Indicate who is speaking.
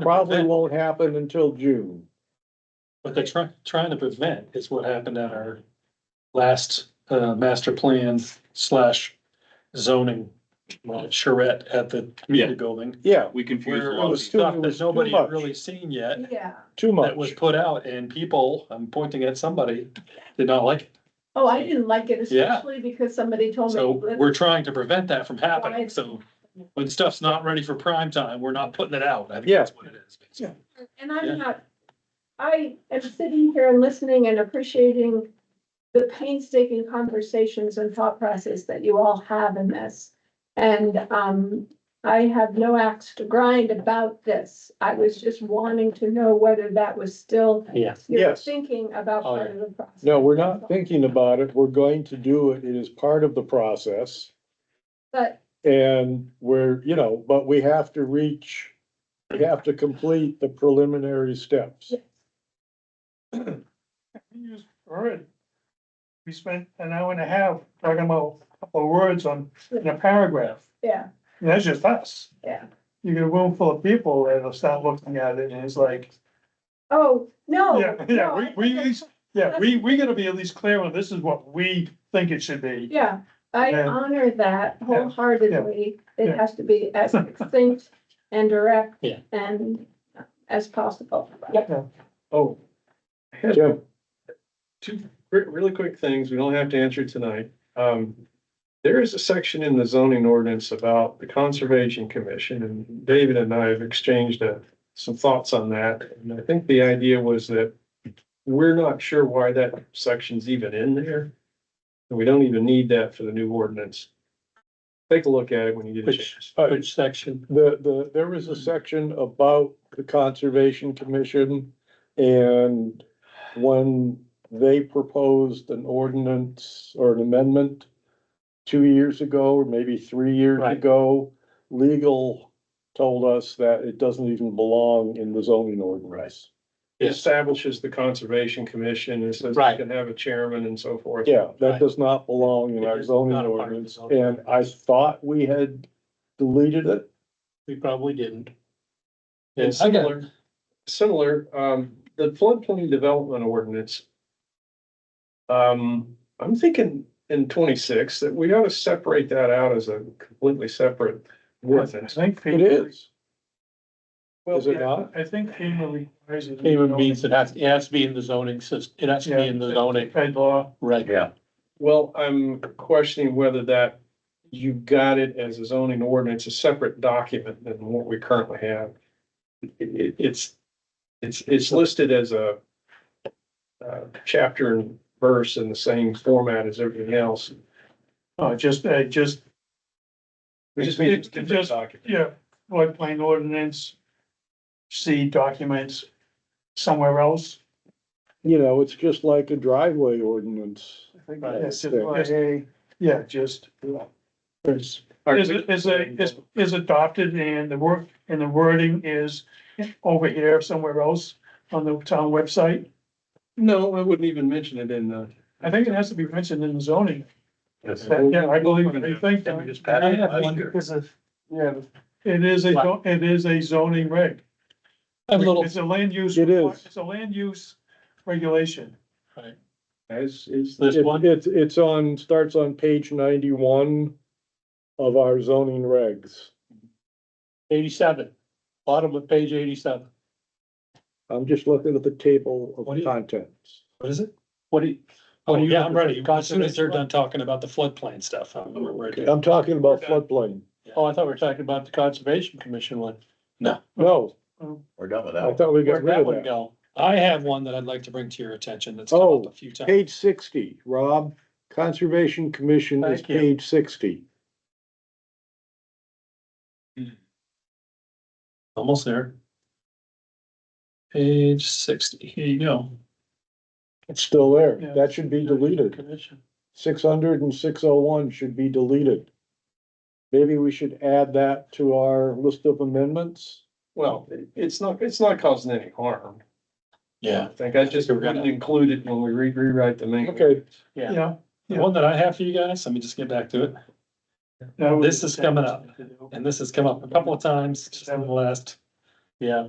Speaker 1: to
Speaker 2: Probably
Speaker 1: prevent-
Speaker 2: won't happen until June.
Speaker 1: What they're trying, trying to prevent is what happened at our last, uh, master plan slash zoning uh, charrette at the community building.
Speaker 2: Yeah,
Speaker 3: We confused a
Speaker 1: Where it
Speaker 3: lot of
Speaker 1: was
Speaker 3: people.
Speaker 1: stuff
Speaker 2: It was
Speaker 1: that
Speaker 2: too
Speaker 1: nobody
Speaker 2: much.
Speaker 1: had really seen yet,
Speaker 4: Yeah,
Speaker 2: too
Speaker 1: that was
Speaker 2: much.
Speaker 1: put out, and people, I'm pointing at somebody, did not like it.
Speaker 4: oh, I didn't like it,
Speaker 1: Yeah.
Speaker 4: especially because somebody told me.
Speaker 1: So
Speaker 4: "Let's
Speaker 1: we're trying to prevent that from happening,
Speaker 4: Right.
Speaker 1: so when stuff's not ready for prime time, we're not putting it out, I think
Speaker 2: Yeah.
Speaker 1: that's what it is.
Speaker 2: Yeah.
Speaker 4: And
Speaker 1: Yeah.
Speaker 4: I'm not, I am sitting here and listening and appreciating the painstaking conversations and thought process that you all have in this. And, um, I have no axe to grind about this. I was just wanting to know whether that was still
Speaker 1: Yes.
Speaker 4: your
Speaker 2: Yes.
Speaker 4: thinking about
Speaker 1: Oh,
Speaker 4: part of the process.
Speaker 2: No, we're not thinking about it. We're going to do it. It is part of the process.
Speaker 4: But
Speaker 2: And we're, you know, but we have to reach, we have to complete the preliminary steps.
Speaker 5: Already. We spent an hour and a half talking about a couple of words on, in a paragraph.
Speaker 4: Yeah,
Speaker 5: And that's just us.
Speaker 4: Yeah.
Speaker 5: You get a room full of people that'll start looking at it and it's like,
Speaker 4: oh, no.
Speaker 5: yeah,
Speaker 4: no,
Speaker 5: yeah,
Speaker 4: I-
Speaker 5: we, we, yeah, we, we gotta be at least clear on this is what we think it should be.
Speaker 4: Yeah, I
Speaker 5: Yeah.
Speaker 4: honor that wholeheartedly.
Speaker 5: Yeah.
Speaker 4: It has to be as succinct and direct
Speaker 1: Yeah.
Speaker 4: and as possible.
Speaker 6: Oh,
Speaker 2: Jim,
Speaker 6: two re- really quick things. We don't have to answer tonight. Um, there is a section in the zoning ordinance about the Conservation Commission and David and I have exchanged uh, some thoughts on that. And I think the idea was that we're not sure why that section's even in there. And we don't even need that for the new ordinance. Take a look at it when you get a
Speaker 1: Which,
Speaker 6: chance.
Speaker 1: which section?
Speaker 2: the, the, there was a section about the Conservation Commission and when they proposed an ordinance or an amendment two years ago, or maybe three years
Speaker 1: Right.
Speaker 2: ago, legal told us that it doesn't even belong in the zoning ordinance.
Speaker 6: It Establishes the Conservation Commission and says
Speaker 1: Right.
Speaker 6: you can have a chairman and so forth.
Speaker 2: Yeah, that
Speaker 1: Right.
Speaker 2: does not belong in
Speaker 1: It
Speaker 2: our
Speaker 1: is
Speaker 2: zoning
Speaker 1: not a part of the
Speaker 2: ordinance,
Speaker 1: zoning
Speaker 2: and I thought we had deleted it.
Speaker 1: We probably didn't.
Speaker 6: And similar, similar, um, the floodplain development ordinance. Um, I'm thinking in twenty-six that we ought to separate that out as a completely separate
Speaker 5: I
Speaker 6: ordinance.
Speaker 5: think.
Speaker 2: It is.
Speaker 5: Well,
Speaker 2: Is it not?
Speaker 5: I think FEMA requires it.
Speaker 1: Even means it has, it has to be in the zoning system, it has to be in the zoning,
Speaker 5: By law,
Speaker 1: right? Yeah.
Speaker 6: Well, I'm questioning whether that, you got it as a zoning ordinance, a separate document than what we currently have. It- it- it's, it's, it's listed as a uh, chapter and verse in the same format as everything else. Oh,
Speaker 5: no, just, uh, just
Speaker 6: We just
Speaker 5: It-
Speaker 6: need a
Speaker 5: it
Speaker 6: different
Speaker 5: just-
Speaker 6: document.
Speaker 5: Yeah, floodplain ordinance, see documents somewhere else.
Speaker 2: You know, it's just like a driveway ordinance.
Speaker 5: Yes,
Speaker 2: that's
Speaker 5: just
Speaker 2: fair.
Speaker 5: like a- Yeah, just,
Speaker 1: There's,
Speaker 5: is, is a, is, is adopted and the work, and the wording is over here somewhere else on the town website.
Speaker 6: No, I wouldn't even mention it in the.
Speaker 5: I think it has to be mentioned in the zoning.
Speaker 6: Yes.
Speaker 5: Yeah, I believe, I think,
Speaker 1: I have one-
Speaker 5: yeah, it is a, zo- it is a zoning reg.
Speaker 1: a little,
Speaker 5: It's a land use.
Speaker 2: It is.
Speaker 5: It's a land use regulation.
Speaker 6: As is,
Speaker 1: there's
Speaker 2: It-
Speaker 1: one,
Speaker 2: It's, it's on, starts on page ninety-one of our zoning regs.
Speaker 1: eighty-seven, bottom of page eighty-seven.
Speaker 2: I'm just looking at the table
Speaker 1: What do
Speaker 2: of
Speaker 1: you-
Speaker 2: contents.
Speaker 1: What is it? Oh, What do you? What do you?
Speaker 2: yeah, I'm ready.
Speaker 1: As soon as they're done talking about the floodplain stuff. I'm ready.
Speaker 2: I'm talking about floodplain.
Speaker 1: Oh, I thought we were talking about the Conservation Commission one.
Speaker 2: No,
Speaker 7: We're done with
Speaker 2: I
Speaker 7: that.
Speaker 2: thought we got
Speaker 1: Where'd that
Speaker 2: rid
Speaker 1: one
Speaker 2: of that.
Speaker 1: go? I have one that I'd like to bring to your attention that's come up
Speaker 2: Oh,
Speaker 1: a few times.
Speaker 2: Page sixty, Rob, Conservation Commission is
Speaker 1: Thank you.
Speaker 2: page sixty.
Speaker 1: Almost there. Page sixty, here you go.
Speaker 2: It's still there.
Speaker 5: Yeah.
Speaker 2: That should be deleted.
Speaker 1: Commission.
Speaker 2: six hundred and six oh one should be deleted. Maybe we should add that to our list of amendments.
Speaker 6: well, it- it's not, it's not causing any harm.
Speaker 1: Yeah,
Speaker 6: I think I just
Speaker 1: We're gonna-
Speaker 6: wouldn't include it when we re- rewrite the main.
Speaker 2: Okay.
Speaker 1: Yeah.
Speaker 5: Yeah.
Speaker 1: the one that I have for you guys, let me just get back to it.
Speaker 5: that would be
Speaker 1: This is
Speaker 5: the
Speaker 1: coming
Speaker 5: thing
Speaker 1: up.
Speaker 5: to do.
Speaker 1: And this has come up a couple of times just in the last yeah,